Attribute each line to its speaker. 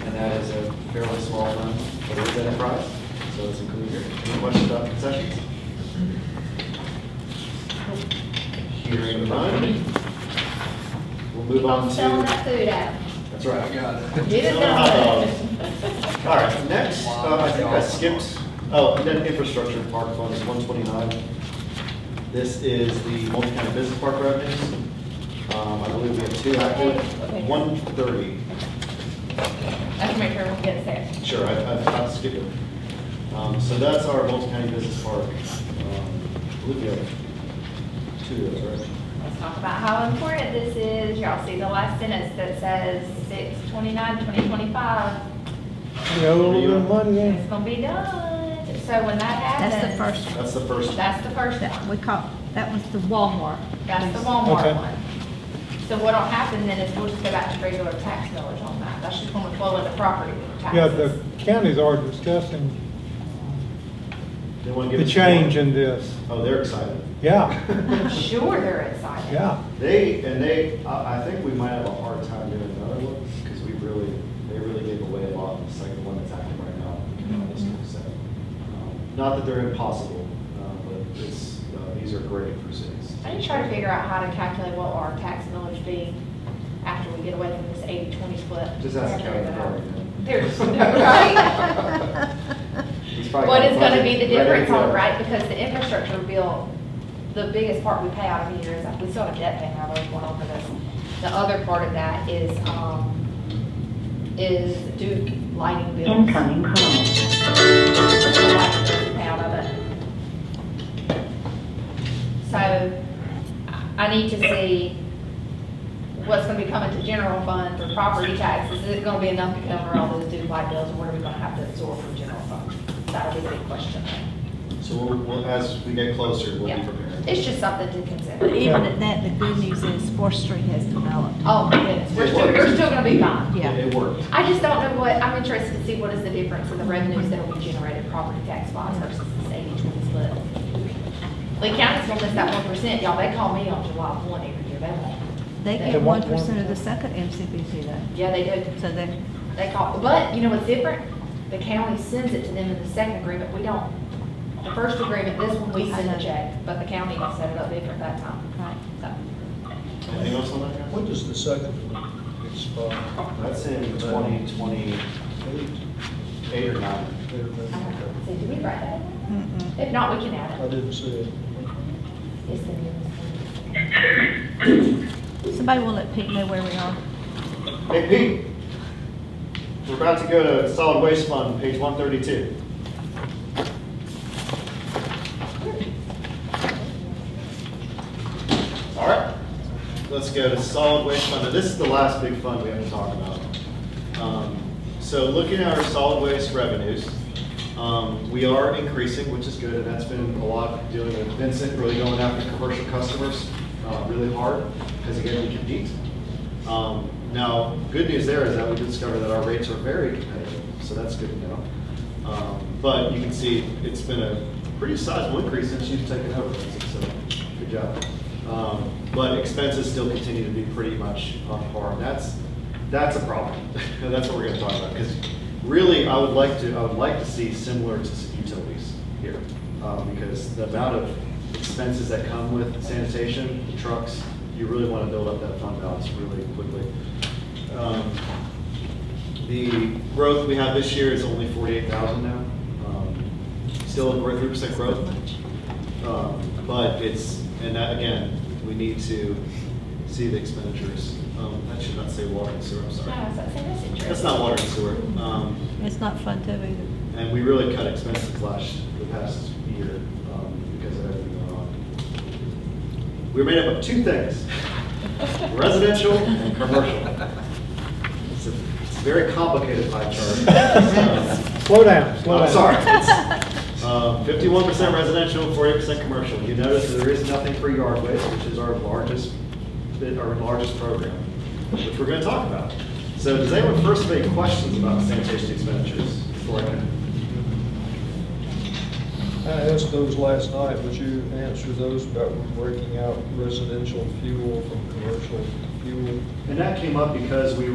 Speaker 1: that is a fairly small amount for this enterprise, so it's included here. Any questions about concessions? Hearing none. We'll move on to.
Speaker 2: Selling that food out.
Speaker 1: That's right. I got it.
Speaker 2: Get it
Speaker 1: All
Speaker 2: done.
Speaker 1: right, next, uh, I think I skipped, oh, and then infrastructure and park fund is one twenty-nine. This is the multi-county business park revenues. Um, I believe we have two active, one thirty.
Speaker 3: That's my turn.
Speaker 2: Yes, sir.
Speaker 1: Sure, I, I- I'll skip it. Um, so that's our multi-county business park. Um, I believe we have two of those, right?
Speaker 2: Let's talk about how important this is. Y'all see the last sentence that says six twenty-nine, twenty twenty-five.
Speaker 4: You know, a little bit of money in it.
Speaker 2: It's gonna be done. So when that happens.
Speaker 5: That's the first one.
Speaker 1: That's the first.
Speaker 2: That's the first
Speaker 5: That
Speaker 2: one.
Speaker 5: we call, that was the Walmart.
Speaker 2: That's the
Speaker 4: Okay.
Speaker 2: Walmart one. So what'll happen then is we'll just go back to regular tax millers on that. That's just gonna flow into property taxes.
Speaker 4: Yeah, the counties are discussing
Speaker 1: They want to give
Speaker 4: the
Speaker 1: us-
Speaker 4: change in this.
Speaker 1: Oh, they're excited.
Speaker 4: Yeah,
Speaker 2: I'm sure they're excited.
Speaker 4: yeah.
Speaker 1: They, and they, I, I think we might have a hard time doing another one, because we really, they really gave away a lot, it's like the one that's active right now. in our district, so, um, Not that they're impossible, uh, but it's, uh, these are great for cities.
Speaker 2: I need to try to figure out how to calculate what our tax millage be after we get away from this 80-20 split.
Speaker 1: Just ask the county department.
Speaker 2: There's, right?
Speaker 1: He's probably
Speaker 2: What
Speaker 1: got a
Speaker 2: is gonna be
Speaker 1: budget ready
Speaker 2: the difference
Speaker 1: to
Speaker 2: on,
Speaker 1: go.
Speaker 2: right, because the infrastructure bill, the biggest part we pay out of here is, we still have debt paying out of going over this. The other part of that is, um, is Duke lighting bills.
Speaker 6: Incoming call.
Speaker 2: out of it. So I- I need to see what's gonna be coming to general fund for property taxes. Is it gonna be enough to cover all those due light bills, or what are we gonna have to absorb from general fund? That'll be the big question.
Speaker 1: So we'll, we'll- as we get closer, we'll
Speaker 2: Yeah,
Speaker 1: be prepared.
Speaker 2: it's just something to consider.
Speaker 5: But even at that, the good news is Fourth Street has developed.
Speaker 2: Oh, my goodness, we're still, we're still gonna be fine.
Speaker 5: Yeah.
Speaker 1: It worked.
Speaker 2: I just don't know what, I'm interested to see what is the difference in the revenues that will be generated property tax wise versus this eighty twenty split. Lee County's gonna miss that one percent, y'all, they call me on July one every year, they won't.
Speaker 5: They
Speaker 2: They
Speaker 5: get
Speaker 4: want
Speaker 5: one percent of the second MCBC though,
Speaker 2: Yeah, they do,
Speaker 5: so they,
Speaker 2: they call, but you know what's different? The county sends it to them in the second agreement, we don't. The first agreement, this one, we send a check, but the county set it up different that time,
Speaker 5: right.
Speaker 2: so.
Speaker 1: Anything else on that, guys?
Speaker 7: When does the second one expire?
Speaker 1: That's in twenty twenty-eight
Speaker 7: Eight,
Speaker 1: or nine.
Speaker 7: eight or
Speaker 2: I
Speaker 7: nine?
Speaker 2: don't know. So do we write that?
Speaker 5: Mm-mm.
Speaker 2: If not, we can add
Speaker 7: I
Speaker 2: it.
Speaker 7: didn't see it.
Speaker 2: It's the newest one.
Speaker 5: Somebody will let Pete know where we are.
Speaker 1: Hey Pete, we're about to go to solid waste fund, page one thirty-two. All right, let's go to solid waste fund. Now, this is the last big fund we have to talk about. Um, So looking at our solid waste revenues, um, we are increasing, which is good, and that's been a lot dealing with Vincent really going after commercial customers uh, really hard, because again, we compete. Um, Now, good news there is that we discovered that our rates are very competitive, so that's good to know. Um, But you can see, it's been a pretty sizable increase since you've taken over, Vincent, so good job. Um, But expenses still continue to be pretty much on par, and that's, that's a problem. That's what we're gonna talk about, because really, I would like to, I would like to see similar to utilities here, um, because the amount of expenses that come with sanitation, the trucks, you really want to build up that fund balance really quickly. Um, The growth we have this year is only forty-eight thousand now, um, still a three percent growth. Um, But it's, and that, again, we need to see the expenditures. Um, That should not say water and sewer, I'm sorry.
Speaker 2: No, so- so that's interesting.
Speaker 1: That's not water and sewer. Um,
Speaker 5: It's not fun to either.
Speaker 1: and we really cut expenses last, the past year, um, because of everything going on. We're made up of two things, residential and commercial. It's a, it's a very complicated pie chart.
Speaker 4: Slow down, slow down.
Speaker 1: I'm sorry. Fifty-one percent residential, forty percent commercial. You notice that there is nothing for yard waste, which is our largest, our largest program, which we're gonna talk about. So does anyone first have any questions about sanitation expenditures before I can?
Speaker 7: I asked those last night, would you answer those about breaking out residential fuel from commercial fuel?
Speaker 1: And that came up because we